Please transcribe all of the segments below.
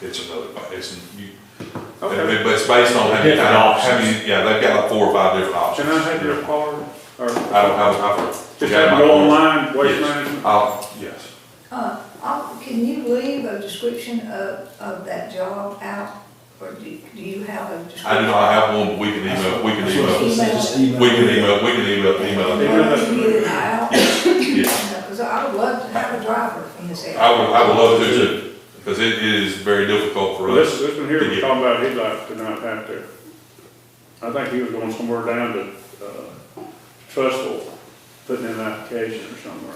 it's another, bu- it's, you, but Okay, it's based on how many, Different how options. many- yeah, they've got like four or five different can options. I have your card, or I don't, I don't, I've. just have to go online, waste Yes. management? I'll, yes. Uh, I'll- Can you leave a description of, of that job out, or do do you have a description? I do not have one, but we can email, we can email, Just we can email, we can email, email. it. Or Can you get it out? Yes. Because I would love to have a driver in this area. I would, I would love to too, because it is very difficult for Well, This, us. this one here we're talking about, he'd like to not have to, I think he was going somewhere down to, uh, Trustville, putting in an application or somewhere.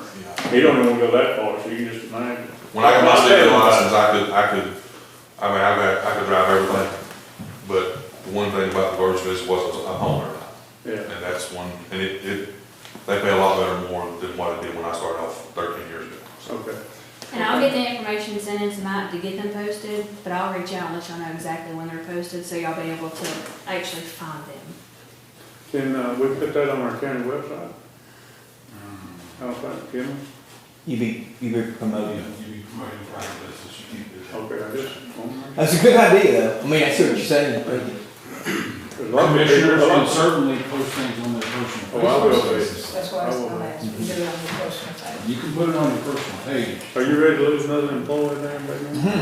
He don't even wanna go that far, so you can just imagine. When I got my state license, I could, I could, I mean, I could, I could drive everything, but the one thing about the Virgin is was I'm home every night. Yeah, And that's one, and it, it, they pay a lot better more than what it did when I started off thirteen years ago. So, okay. And I'll get the information sent in tonight to get them posted, but I'll reach out and let y'all know exactly when they're posted, so y'all be able to actually find them. Can, uh, we put that on our county website? Hmm. How's that, Kim? You be you be promoted. Okay, I just, um, That's a good idea, though. I mean, I see what you're saying. but- there's a lot of people- Commissioners a can lot of- certainly post things on their personal. Oh, I will be. That's why I was gonna ask, we do it on the personal side. You can put it on your personal page. Are you ready to lose another employee there, baby?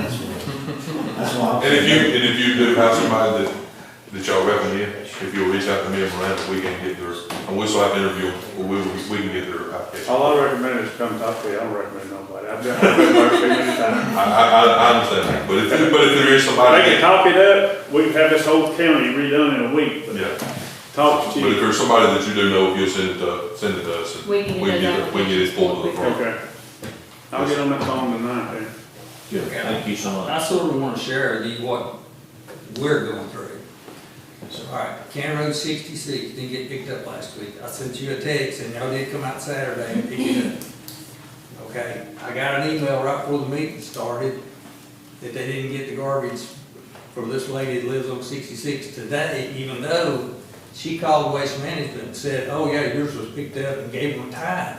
That's why. And if you, and if you do have somebody that, that y'all recommend, if you'll reach out to me and Miranda, we can get theirs, and we still have to interview, them, or we, we can get their application. All I recommend is come talk to you, I don't recommend nobody, I've been, I've been there too many times. I, I, I I understand that, but if, but if there is somebody, They can talk it up, we can have this whole county redone in a week, but yeah, talk but to if you. there's somebody that you do know, if you'll send it to, send it to us. and We can get those it- We can get it pulled to the front. Okay. I'll get on that phone tonight then. Thank you so much. I sort of want to share with you what we're going through. All right, County Road sixty-six didn't get picked up last week. I sent you a text and y'all did come out Saturday and pick it up. Okay, I got an email right before the meeting started that they didn't get the garbage from this lady that lives on sixty-six today, even though she called Waste Management and said, oh yeah, yours was picked up and gave them time.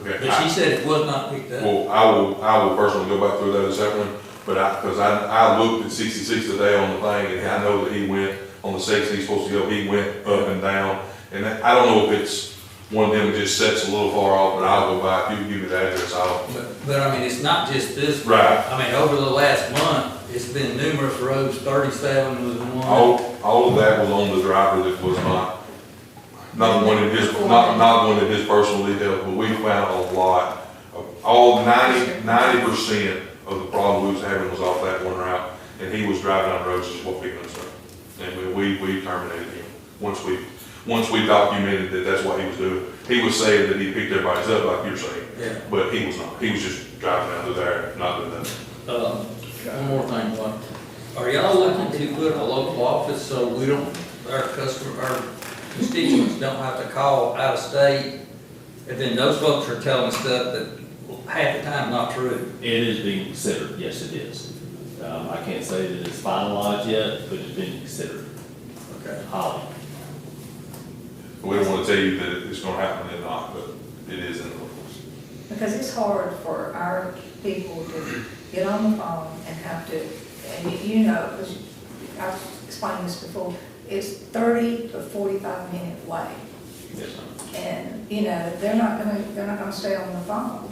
Okay, But she I, said it was not picked up. well, I will, I will personally go back through that this afternoon, but I, cause I, I looked at sixty-six today on the thing, and I know that he went on the six, he's supposed to go, he went up and down, and that- I don't know if it's one of them that just sets a little far off, but I'll go back, you give me the address, I'll, But, but I mean, it's not just this. Right. I mean, over the last month, it's been numerous roads, thirty-seven was one. All, all of that was on the driver that was not, not one in his, not, not one in his personal detail, but we found a lot. of- All ninety, ninety percent of the problem we was having was off that one route, and he was driving on roads is what we concerned. And we- we, we terminated him, once we, once we documented that that's what he was doing. He was saying that he picked everybody's up, like you're saying, Yeah. but he was not, he was just driving out of there, not doing nothing. Uh, One more thing, what, are y'all looking to put a local office so we don't, our customer, our constituents don't have to call out of state? And then those folks are telling us stuff that half the time not true. It is being considered, yes, it is. Um, I can't say that it's finalized yet, but it's being considered, Okay. highly. We don't wanna tell you that it's gonna happen and not, but it is in the works. Because it's hard for our people to get on the phone and have to, and you- you know, because I've explained this before, it's thirty to forty-five minute wait. Yes, ma'am. And, you know, they're not gonna, they're not gonna stay on the phone.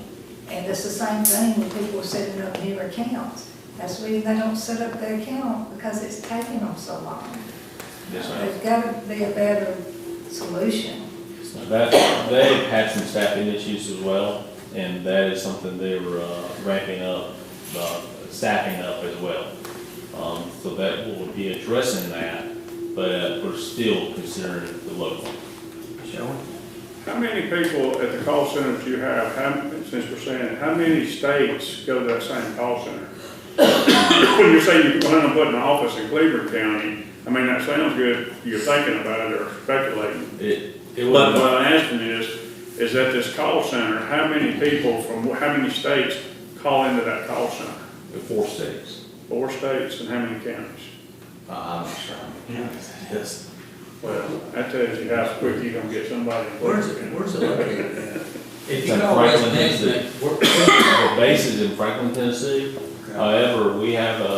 And it's the same thing when people are setting up new accounts. That's the reason they don't set up their account, because it's taking them so long. Yes, ma'am. There's gotta be a better solution. That, they had some staffing issues as well, and that is something they were uh, ramping up, uh, staffing up as well. Um, so that will be addressing that, but we're still considering the local. Shall How many people at the call center that you have, how, since we're saying, how many states go to that same call center? When you say you're planning on putting an office in Cleveland County, I mean, that sounds good, you're thinking about it or speculating. It, it But was, what I'm asking is, is that this call center, how many people from, how many states call into that call center? four states. Four states and how many counties? Uh, I'm not sure. Yes. Well, that tells you how quick you're gonna get somebody. in Where's it, Cleveland County. where's it located at? If It's you in call West Franklin, is it? Management, we're, Our base is in Franklin, Tennessee. However, we have a